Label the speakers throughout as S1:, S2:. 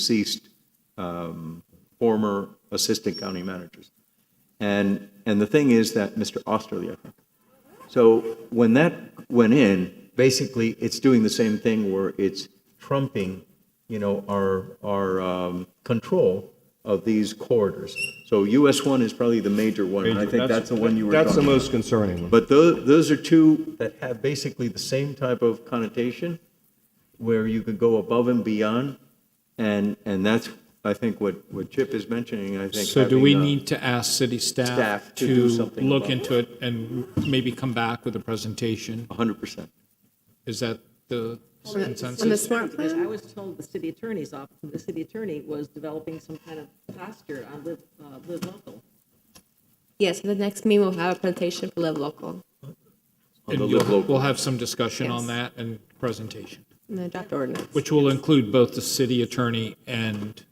S1: deceased um, former assistant county managers. And, and the thing is that Mr. Osterly, I think. So when that went in, basically, it's doing the same thing where it's trumping, you know, our, our um, control of these corridors. So US one is probably the major one. I think that's the one you were talking about.
S2: That's the most concerning one.
S1: But those, those are two that have basically the same type of connotation, where you could go above and beyond, and, and that's, I think, what, what Chip is mentioning, I think.
S3: So do we
S1: having, uh,
S3: need to ask city
S1: staff
S3: staff
S1: to do
S3: to
S1: something
S3: look
S1: about
S3: into it and maybe come back with a presentation?
S1: 100%.
S3: Is that the
S4: On the
S3: consensus?
S4: smart
S5: Because I
S4: plan?
S5: was told the city attorney's office, the city attorney was developing some kind of posture on live, uh, live local.
S4: Yes, the next meeting we'll have a presentation for Live Local.
S3: And
S1: the
S3: you'll-
S1: local.
S3: We'll have some discussion on
S4: Yes.
S3: that and presentation,
S4: And the draft ordinance.
S3: which will include both the city attorney and,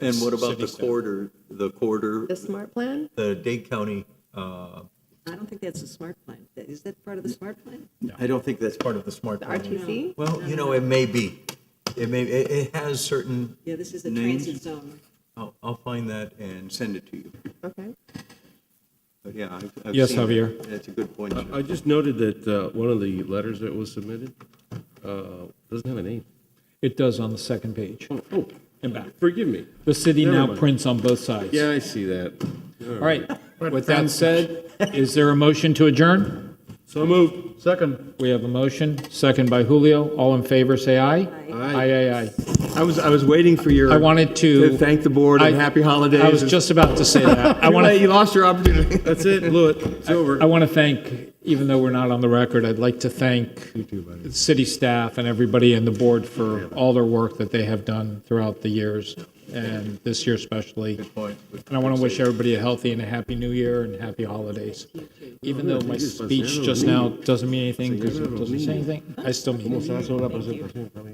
S1: And what about
S3: City
S1: the
S3: staff.
S1: corridor, the corridor,
S4: The smart plan?
S1: the Dade County? uh,
S5: I don't think that's a smart plan. Is that part of the smart plan?
S1: I don't think that's part of the SMART
S4: The
S1: plan.
S4: RTC?
S1: Well, you know, it may be. It may, it, it has certain,
S5: Yeah, this is a
S1: Names?
S5: transit zone.
S1: I'll, I'll find that and send it to you.
S4: Okay.
S1: But yeah, I've. I've
S3: Yes,
S1: seen it.
S3: Javier.
S1: That's a good point. Chip.
S6: I just noted that uh, one of the letters that was submitted uh, doesn't have a name.
S3: it does on the second page.
S6: Oh,
S3: And back.
S6: forgive me.
S3: The city
S6: Never
S3: now
S6: mind.
S3: prints on both sides.
S6: Yeah, I see that.
S3: All right. With that said, is there a motion to adjourn?
S6: So moved. Second.
S3: We have a motion, second by Julio. All in favor, say aye. Aye. Aye, aye,
S2: I was, I was waiting for your.
S3: I wanted to.
S2: Thank the board and
S3: I-
S2: happy holidays.
S3: I was just about to say that. I
S2: Too
S3: want
S2: late,
S3: to,
S2: You lost your opportunity.
S6: That's it, blew it, it's over.
S3: I want to thank, even though we're not on the record, I'd like to thank the city staff and everybody in the board for all their work that they have done throughout the years, and this year especially. Good point. And I want to wish everybody a healthy and a happy new year and happy holidays. Even though my speech just now doesn't mean anything because it doesn't say anything, I still mean it.
S6: Será solo la presentación, Javier.